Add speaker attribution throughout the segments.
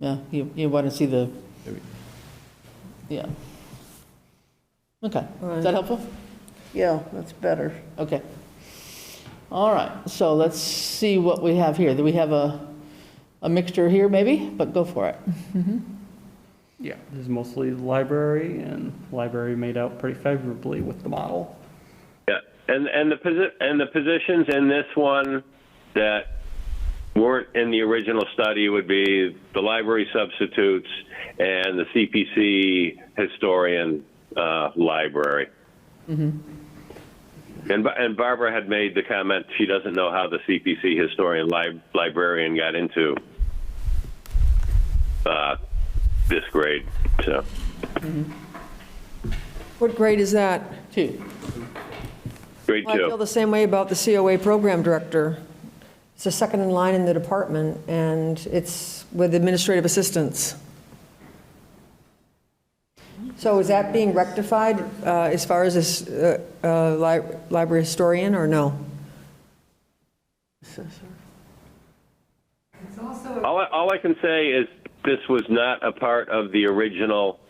Speaker 1: Yeah, you, you want to see the, yeah. Okay, is that helpful?
Speaker 2: Yeah, that's better.
Speaker 1: Okay. All right, so let's see what we have here. Do we have a, a mixture here maybe? But go for it.
Speaker 3: Yeah, this is mostly library, and library made out pretty favorably with the model.
Speaker 4: Yeah, and, and the posi, and the positions in this one that weren't in the original study would be the library substitutes and the CPC historian, uh, library. And, Ba- and Barbara had made the comment, she doesn't know how the CPC historian lib, librarian got into, uh, this grade, so.
Speaker 5: What grade is that?
Speaker 1: Two.
Speaker 4: Grade
Speaker 5: Well, I feel
Speaker 4: two.
Speaker 5: the same way about the COA program director. It's the second in line in the department, and it's with administrative assistance. So is that being rectified uh, as far as this uh, uh, li- library historian, or no?
Speaker 4: All I, all I can say is this was not a part of the original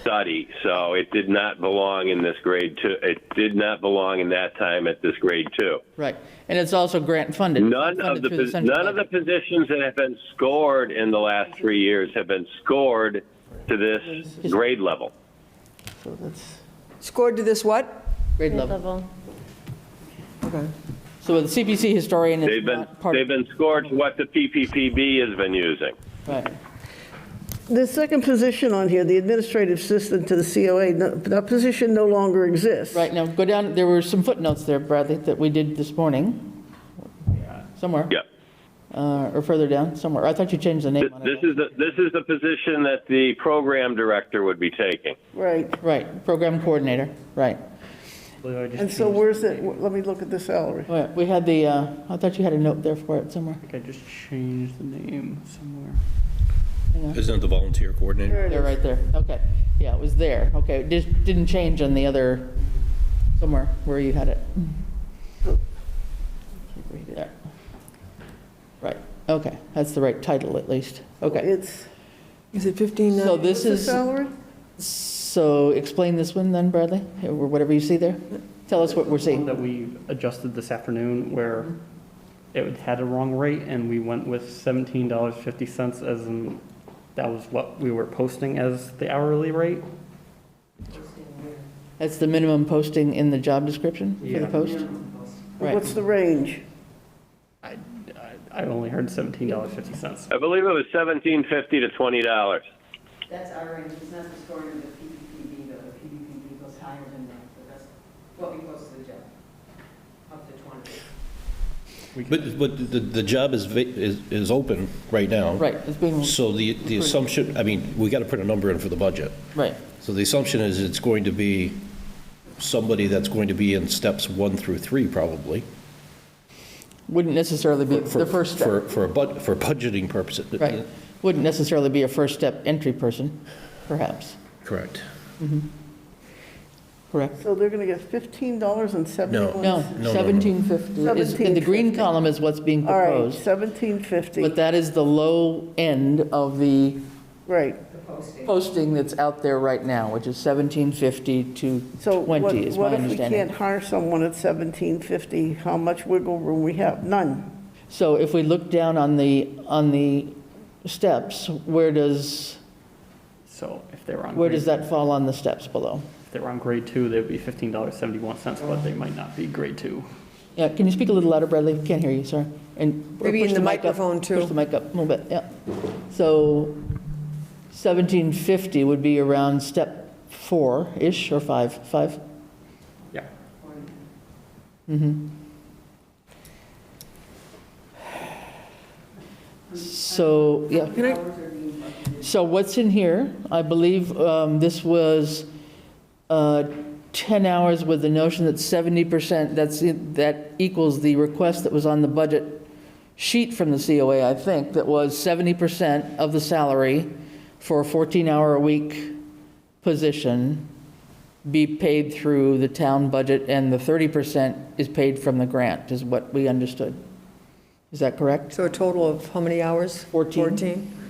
Speaker 4: study, so it did not belong in this grade two. It did not belong in that time at this grade two.
Speaker 1: Right, and it's also grant funded.
Speaker 4: None of
Speaker 1: Funded
Speaker 4: the,
Speaker 1: through
Speaker 4: pos-
Speaker 1: central
Speaker 4: none of the
Speaker 1: government.
Speaker 4: positions that have been scored in the last three years have been scored to this grade level.
Speaker 2: So that's,
Speaker 5: Scored to this what?
Speaker 1: Grade level.
Speaker 6: level.
Speaker 5: Okay.
Speaker 1: So the CPC historian is
Speaker 4: They've been,
Speaker 1: not part
Speaker 4: they've
Speaker 1: of.
Speaker 4: been scored to what the PPPB has been using.
Speaker 1: Right.
Speaker 2: the second position on here, the administrative assistant to the COA, no- that position no longer exists.
Speaker 1: Right, now go down, there were some footnotes there, Bradley, that we did this morning, somewhere.
Speaker 4: Yep.
Speaker 1: Uh, Or further down, somewhere. I thought you changed the
Speaker 4: Th-
Speaker 1: name on
Speaker 4: This
Speaker 1: it.
Speaker 4: is the, this is the position that the program director would be taking.
Speaker 2: Right.
Speaker 1: Right, program coordinator, right.
Speaker 3: I believe I just
Speaker 2: And so
Speaker 3: changed-
Speaker 2: where's it, let me look at the salary.
Speaker 1: All right, We had the, uh, I thought you had a note there for it somewhere.
Speaker 3: I think I just changed the name somewhere.
Speaker 7: Isn't it the volunteer coordinator?
Speaker 2: There it
Speaker 1: They're
Speaker 2: is.
Speaker 1: right there, okay. Yeah, it was there, okay. It just didn't change on the other, somewhere where you had it. There. Right, okay, that's the right title at least, okay.
Speaker 2: It's,
Speaker 5: Is it 15?
Speaker 1: So this
Speaker 2: what's the
Speaker 1: is,
Speaker 2: salary?
Speaker 1: so explain this one then, Bradley, or whatever you see there. Tell us what we're
Speaker 3: One
Speaker 1: seeing.
Speaker 3: That we adjusted this afternoon where it had a wrong rate, and we went with seventeen dollars fifty cents as in, that was what we were posting as the hourly rate.
Speaker 1: That's the minimum posting in the job description for the
Speaker 3: Yeah.
Speaker 1: post? Right,
Speaker 2: What's the range?
Speaker 3: I, I- I only heard seventeen dollars fifty cents.
Speaker 4: I believe it was seventeen fifty to twenty dollars.
Speaker 8: That's our range, it's not the scoring of the PPPB, though, the PPPB goes higher than that, so that's what we post to the job, up to 20.
Speaker 7: But, but the, the job is, va- is, is open right now.
Speaker 1: right, it's being,
Speaker 7: So the, the assumption, I mean, we got to put a number in for the budget.
Speaker 1: right,
Speaker 7: So the assumption is it's going to be somebody that's going to be in steps one through three, probably.
Speaker 1: wouldn't necessarily be
Speaker 7: for-
Speaker 1: the first
Speaker 7: For,
Speaker 1: step,
Speaker 7: for a bud, for budgeting purposes.
Speaker 1: right. Wouldn't necessarily be a first step entry person, perhaps,
Speaker 7: Correct.
Speaker 1: correct?
Speaker 2: So they're going to get $15.71?
Speaker 1: No,
Speaker 7: no, no.
Speaker 1: 1750 is, in the green
Speaker 2: 1750.
Speaker 1: column is what's being
Speaker 2: All right,
Speaker 1: proposed, but
Speaker 2: 1750,
Speaker 1: that is the low end of the
Speaker 2: right.
Speaker 1: posting that's out there right now, which is 1750 to
Speaker 2: So what
Speaker 1: 20, is my
Speaker 2: what if we can't
Speaker 1: understanding.
Speaker 2: hire someone at 1750? How much wiggle room we have? None.
Speaker 1: So if we look down on the, on the steps, where does,
Speaker 3: So if they were on.
Speaker 1: where
Speaker 3: grade-
Speaker 1: does that fall on the steps below?
Speaker 3: If they were on grade two, they would be fifteen dollars seventy-one cents, but they might not be grade two.
Speaker 1: Yeah, can you speak a little louder, Bradley? Can't hear you, sorry. And or
Speaker 5: Maybe in
Speaker 1: push
Speaker 5: the
Speaker 1: mic up-
Speaker 5: microphone, too.
Speaker 1: Push the mic up a little bit, yeah. So 1750 would be around step four-ish, or five, five?
Speaker 3: Yeah.
Speaker 1: So, yeah. So what's in here? I believe um, this was uh, 10 hours with the notion that 70%, that's, that equals the request that was on the budget sheet from the COA, I think, that was 70% of the salary for a 14-hour-a-week position be paid through the town budget, and the 30% is paid from the grant, is what we understood. Is that correct?
Speaker 5: So a total of how many hours?
Speaker 1: Fourteen.
Speaker 5: 14?